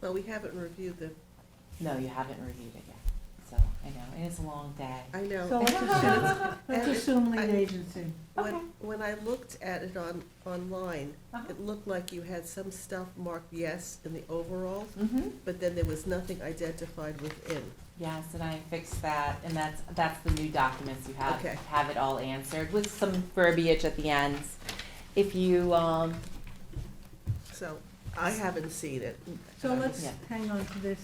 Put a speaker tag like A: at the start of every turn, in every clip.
A: Well, we haven't reviewed the,
B: No, you haven't reviewed it yet, so, I know, and it's a long day.
A: I know.
C: So let's assume, let's assume lead
A: I-
C: agency.
A: When,
B: Okay.
A: when I looked at it on, online,
B: Uh-huh.
A: it looked like you had some stuff marked yes in the overall,
B: Mm-hmm,
A: but then there was nothing identified within.
B: yes, and I fixed that, and that's, that's the new documents you have,
A: Okay.
B: have it all answered with some verbiage at the ends. If you, um,
A: So I haven't seen it.
C: So let's
B: Yeah.
C: hang on to this.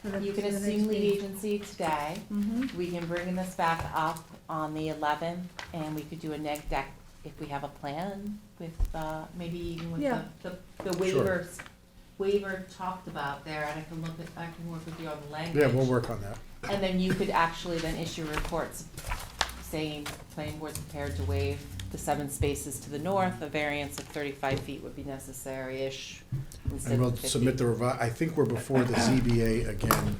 C: for the-
B: you can
C: for the
B: assume
C: next
B: lead
C: meeting.
B: agency today,
C: Mhm.
B: we can bring this back up on the eleventh, and we could do a neg deck if we have a plan with, uh, maybe even with the,
C: Yeah.
B: the- the waivers. Waiver talked about there, and I can look at, I can work with you on the language.
D: Yeah, we'll work on that.
B: And then you could actually then issue reports saying, planning board's prepared to waive the seven spaces to the north, a variance of thirty-five feet would be necessary-ish instead of
D: And we'll
B: fifty.
D: submit the revi, I think we're before the ZBA again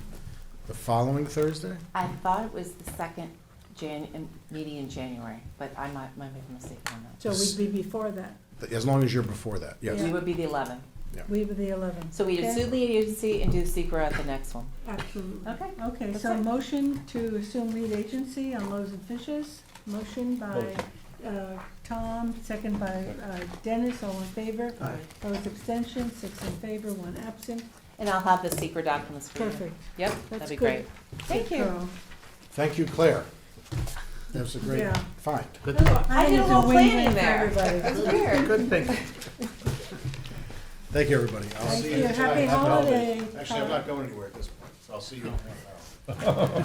D: the following Thursday?
B: I thought it was the second Jan, in- meeting in January, but I might, might make a mistake on that.
C: So we'd be before that.
D: As long as you're before that, yes.
B: We would be the eleventh.
C: We were the eleventh.
B: So we'd
C: Okay.
B: assume lead agency and do secret at the next one.
C: Absolutely.
B: Okay.
C: Okay,
B: That's
C: so
B: it.
C: motion to assume lead agency on Loaves and Fishes. Motion by uh, Tom, second by uh, Dennis, all in favor.
A: Aye.
C: Opposed, abstention, six in favor, one absent.
B: And I'll have the secret documents for you.
C: Perfect.
B: Yep,
C: That's
B: that'd be
C: good.
B: great. Thank
C: Good
B: you.
C: girl.
D: Thank you, Claire. That was a great
C: Yeah.
D: find.
B: I did a
C: think it's
B: little
C: win-win
B: planning
C: for
B: there.
C: everybody.
B: That's weird.
D: Good thing. Thank you, everybody. I'll
C: Thank
D: see
C: you.
D: you tonight.
C: Happy holiday.
D: Actually, I'm not going anywhere at this point, so I'll see you. in half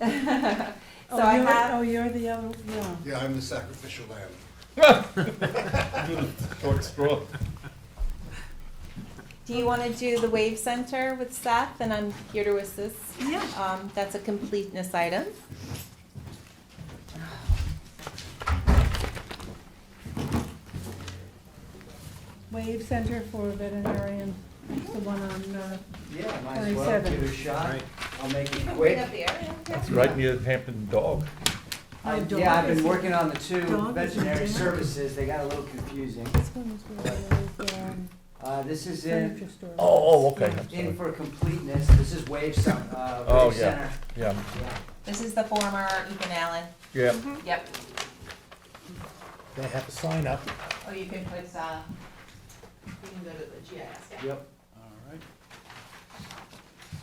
D: an hour.
B: So
C: Oh,
B: I
C: you're-
B: have,
C: Oh, you're the other, yeah.
D: Yeah, I'm the sacrificial lamb.
B: do you want to do the Wave Center with Seth? And I'm here to assist.
C: Yeah.
B: Um, that's a completeness item.
C: Wave Center for Veterinarian, it's the one on, uh,
E: Yeah, might as well give it a shot. I'll make
B: You
E: it
B: can bring
E: quick.
B: up the area.
F: It's right near the Hampton Dog.
E: I-
C: No,
E: Yeah, I've
C: dog is-
E: been working on the two
C: dog is
E: veterinary
C: in-
E: services. They got a little confusing.
C: this one is where there's, um,
E: Uh, this is in,
C: furniture store.
F: Oh, oh, okay, I'm
E: in
F: sorry.
E: for completeness. This is Wave Cen- uh,
F: Oh,
E: Wave Center.
F: yeah. Yeah,
E: Yeah.
B: This is the former Ethan Allen.
F: yeah.
B: Yep.
D: They have a sign up.
B: Oh, you can put, uh, you can go to the GIS. yeah.
E: Yep. All right.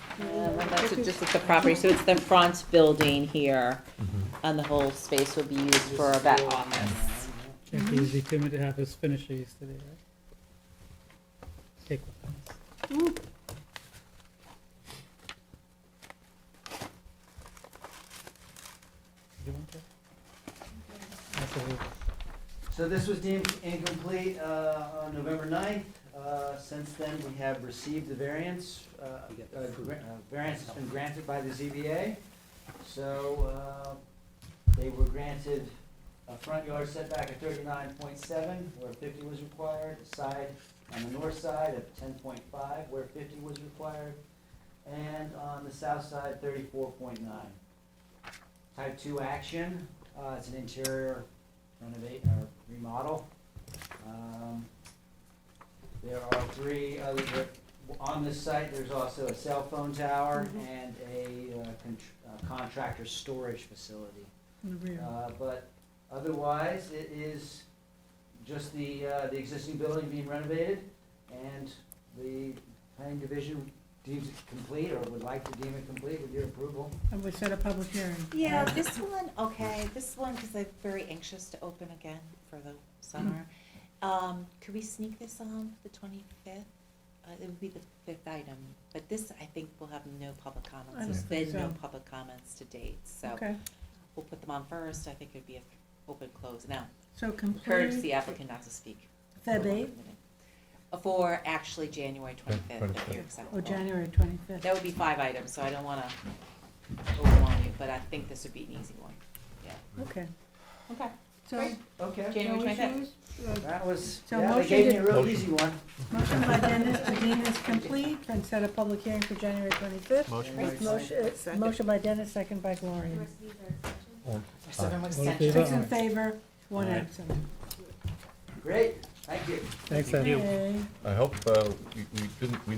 B: Uh, well, That's just at the property, so it's the front building here,
D: Mm-hmm.
B: and the whole space will be used for a vet office.
G: Can't be easy too many to have his finishes today, right? Take one. You want that? That's a little-
E: So this was deemed incomplete uh, on November 9th. Uh, Since then, we have received the variance. uh, uh, gra- uh, Variance has been granted by the ZBA. So uh, they were granted a front yard setback of 39.7 where 50 was required, a side on the north side of 10.5 where 50 was required, and on the south side, 34.9. Type 2 action, uh, it's an interior renovate or remodel. Um, There are three other, on this site, there's also a cell phone tower and a uh, con- uh, contractor storage facility.
C: In the rear.
E: Uh, But otherwise, it is just the, uh, the existing building being renovated, and the planning division deems it complete, or would like to deem it complete with your approval.
C: And we set a public hearing.
B: Yeah, this one, okay, this one, because I'm very anxious to open again for the summer.
C: Mm-hmm.
B: Um, could we sneak this on the twenty-fifth? Uh, it would be the fifth item, but this, I think, will have no public
C: I
B: comments.
C: don't
B: There's
C: think
B: been no
C: so.
B: public comments to date, so
C: Okay,
B: we'll put them on first. I think it'd be a open close. Now,
C: so
B: encourage
C: complete
B: the applicant not to speak.
C: Feb eighth
B: Uh, For actually January twenty-fifth, if you're
C: or
B: acceptable.
C: Oh, January twenty-fifth.
B: That would be five items, so I don't wanna overwhelm you, but I think this would be an easy one.
C: Okay,
B: Okay.
C: so.
B: Great.
E: Okay.
B: January
C: no
B: 25th.
C: issues? Uh,
E: That was,
C: So
E: yeah, they
C: motion
E: gave me
C: to-
E: a real
F: Motion.
E: easy one.
C: Motion by Dennis to deem this complete and set a public hearing for January twenty-fifth.
E: Right.
C: Motion, uh,
A: Second.
C: motion by Dennis, second by Gloria.
B: Or seven
G: All in
B: extensions.
G: favor?
C: Six in favor, one absent.
E: Great, thank you.
G: Thanks, Ed.
C: Okay.
F: I hope uh, we we didn't, we